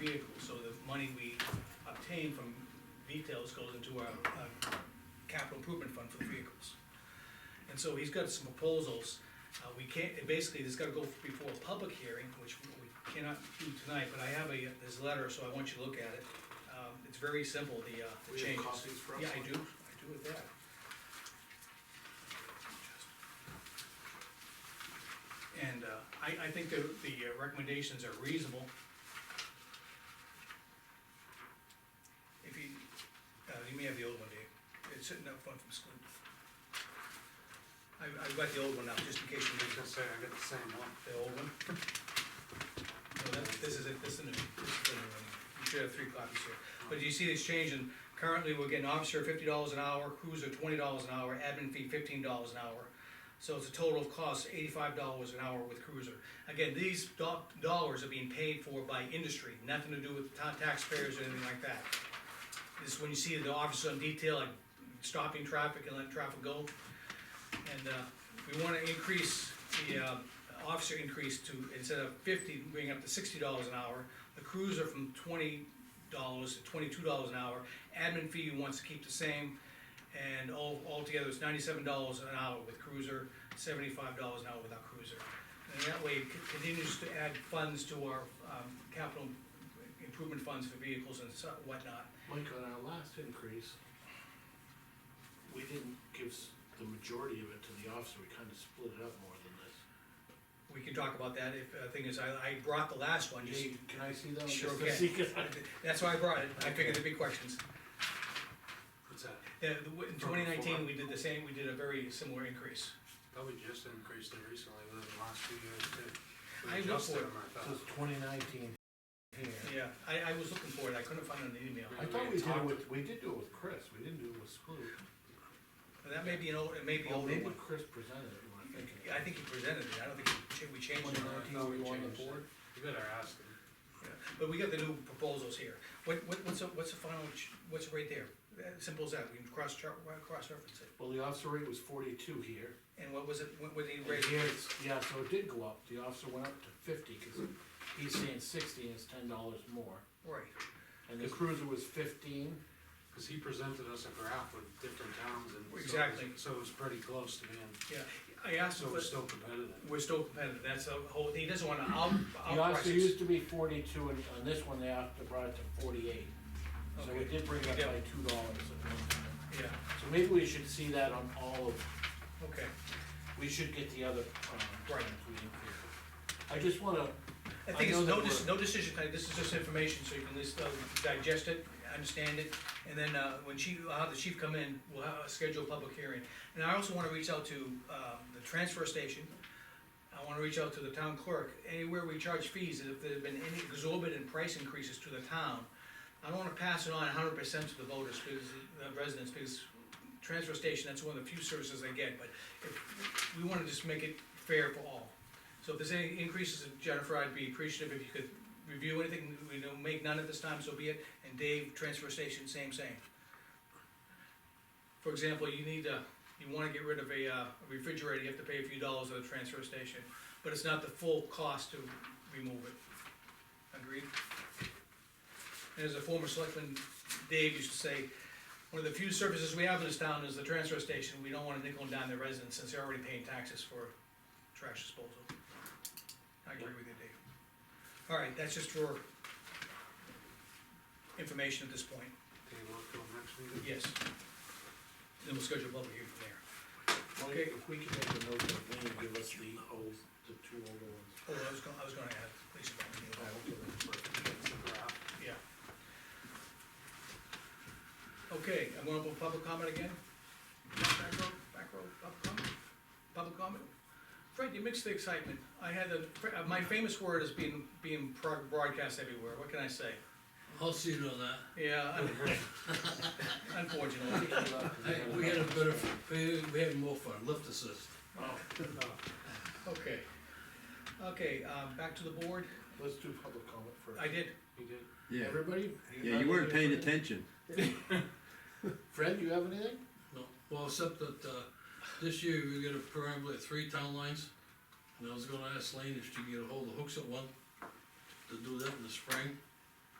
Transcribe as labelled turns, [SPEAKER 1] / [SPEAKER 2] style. [SPEAKER 1] vehicles, so the money we obtain from details goes into our, uh capital improvement fund for the vehicles. And so he's got some proposals, uh, we can't, it basically, it's gotta go before a public hearing, which we we cannot do tonight, but I have a, this letter, so I want you to look at it. Um, it's very simple, the, uh, the
[SPEAKER 2] We have
[SPEAKER 1] changes.
[SPEAKER 2] copies for us?
[SPEAKER 1] Yeah, I do, I do with that. And, uh, I, I think the, the uh, recommendations are reasonable. If you, uh, you may have the old one, Dave, it's sitting up front from school. I, I've got the old one now, just in case you
[SPEAKER 2] I was
[SPEAKER 1] need
[SPEAKER 2] gonna say, I got the same one.
[SPEAKER 1] the old one. No, that- this is it, this is the new, this is the new one. You should have three copies here. But you see this change in, currently we're getting officer fifty dollars an hour, cruiser twenty dollars an hour, admin fee fifteen dollars an hour. So it's a total of cost eighty-five dollars an hour with cruiser. Again, these do- dollars are being paid for by industry, nothing to do with ta- taxpayers or anything like that. This is when you see the officer on detail, like stopping traffic and letting traffic go. And, uh, we wanna increase the, uh, officer increase to, instead of fifty, bring up to sixty dollars an hour. The cruiser from twenty dollars to twenty-two dollars an hour. Admin fee wants to keep the same. And all, altogether, it's ninety-seven dollars an hour with cruiser, seventy-five dollars an hour without cruiser. And that way, it c- continues to add funds to our, um, capital improvement funds for vehicles and so- whatnot.
[SPEAKER 3] Mike, on our last increase, we didn't give s- the majority of it to the officer, we kinda split it up more than this.
[SPEAKER 1] We can talk about that, if, uh, thing is, I, I brought the last one, just,
[SPEAKER 3] Hey, can I see that? one?
[SPEAKER 1] Sure
[SPEAKER 3] Just to
[SPEAKER 1] can.
[SPEAKER 3] see, 'cause I-
[SPEAKER 1] that's why I brought it, I figured there'd be questions.
[SPEAKER 2] What's that?
[SPEAKER 1] Yeah, the w- in
[SPEAKER 2] From
[SPEAKER 1] twenty nineteen,
[SPEAKER 2] before.
[SPEAKER 1] we did the same, we did a very similar increase.
[SPEAKER 2] Probably just increased it recently within the last few years too. We
[SPEAKER 1] I look
[SPEAKER 2] adjusted
[SPEAKER 1] for it.
[SPEAKER 2] them, I
[SPEAKER 3] It
[SPEAKER 2] thought.
[SPEAKER 3] says twenty nineteen here.
[SPEAKER 1] Yeah, I, I was looking for it, I couldn't find it in the email.
[SPEAKER 3] I thought we did it with, we did do it with Chris, we didn't do it with Splu.
[SPEAKER 1] But That may be an old, it may be
[SPEAKER 3] Oh,
[SPEAKER 1] old.
[SPEAKER 3] maybe Chris presented it, when I think.
[SPEAKER 1] I think he presented it, I don't think he cha- we changed
[SPEAKER 3] Twenty
[SPEAKER 1] it.
[SPEAKER 3] nineteen, we won the
[SPEAKER 2] changed it.
[SPEAKER 3] board.
[SPEAKER 2] You better ask them.
[SPEAKER 1] Yeah, But we got the new proposals here. What, what, what's, the- what's the final, ch- what's right there? Uh, Simple as that, we can cross chart, cross reference it.
[SPEAKER 3] Well, the officer rate was forty-two here.
[SPEAKER 1] And what was it, what, what did he
[SPEAKER 3] Right
[SPEAKER 1] raise?
[SPEAKER 3] here, it's, yeah, so it did go up, the officer went up to fifty, cause he's saying sixty and it's ten dollars more.
[SPEAKER 1] Right,
[SPEAKER 3] And the cruiser was fifteen,
[SPEAKER 2] Cause he presented us a graph with different towns and. so it was-
[SPEAKER 1] Exactly.
[SPEAKER 2] So it was pretty close to being,
[SPEAKER 1] yeah, I asked
[SPEAKER 2] so
[SPEAKER 1] him,
[SPEAKER 2] it was
[SPEAKER 1] but
[SPEAKER 2] still competitive.
[SPEAKER 1] we're still competitive, that's the whole, he doesn't wanna out, outprice
[SPEAKER 3] the officer
[SPEAKER 1] us.
[SPEAKER 3] used to be forty-two, and on this one, they have to brought it to forty-eight. So
[SPEAKER 1] Okay.
[SPEAKER 3] it did bring it up by
[SPEAKER 1] Yeah.
[SPEAKER 3] two dollars.
[SPEAKER 1] Yeah,
[SPEAKER 3] So maybe we should see that on all of,
[SPEAKER 1] okay.
[SPEAKER 3] we should get the other, um,
[SPEAKER 1] Right.
[SPEAKER 3] items we included. I just wanna,
[SPEAKER 1] I think
[SPEAKER 3] I
[SPEAKER 1] it's
[SPEAKER 3] know
[SPEAKER 1] no,
[SPEAKER 3] that
[SPEAKER 1] dec-
[SPEAKER 3] we're-
[SPEAKER 1] no decision tonight, this is just information, so you can at least uh, digest it, understand it, and then, uh, when she, I'll have the chief come in, we'll have, schedule a public hearing. And I also wanna reach out to, uh, the transfer station, I wanna reach out to the town clerk, anywhere we charge fees, if there've been any exorbitant price increases to the town, I don't wanna pass it on hundred percent to the voters, because, the residents, because transfer station, that's one of the few services they get, but if, we wanna just make it fair for all. So if there's any increases, Jennifer, I'd be appreciative if you could review anything, we don't make none at this time, so be it, and Dave, transfer station, same, same. For example, you need to, you wanna get rid of a uh, refrigerator, you have to pay a few dollars at the transfer station, but it's not the full cost to remove it. Agreed? And As a former selectman, Dave used to say, one of the few services we have in this town is the transfer station, we don't wanna nickel and dime the residents since they're already paying taxes for trash disposal. I agree with you, Dave. All right, that's just for information at this point,
[SPEAKER 2] Take a look till next meeting.
[SPEAKER 1] yes. Then we'll schedule a public hearing from there.
[SPEAKER 3] Mike, if we can make a note of when you give us the old, the two older ones.
[SPEAKER 1] Oh, I was gonna, I was gonna add, please,
[SPEAKER 3] I hope they're-
[SPEAKER 2] It's a graph.
[SPEAKER 1] yeah. Okay, I'm gonna open public comment again. Back row, back row, public comment, public comment. Fred, you mixed the excitement. I had a, my famous word is being, being pro- broadcast everywhere, what can I say?
[SPEAKER 4] I'll see you on that.
[SPEAKER 1] Yeah, un- unfortunately.
[SPEAKER 4] Hey, we had a better, we we had more fun, lift assist.
[SPEAKER 1] Okay. Okay, um, back to the board.
[SPEAKER 3] Let's do public comment first.
[SPEAKER 1] I did,
[SPEAKER 2] He did.
[SPEAKER 5] Yeah,
[SPEAKER 3] Everybody?
[SPEAKER 5] yeah, you weren't paying attention.
[SPEAKER 3] Fred, you have anything?
[SPEAKER 4] No, well, except that, uh, this year we got a primarily three town lines. And I was gonna ask Lane if she could get a hold of Hooks at one, to do that in the spring.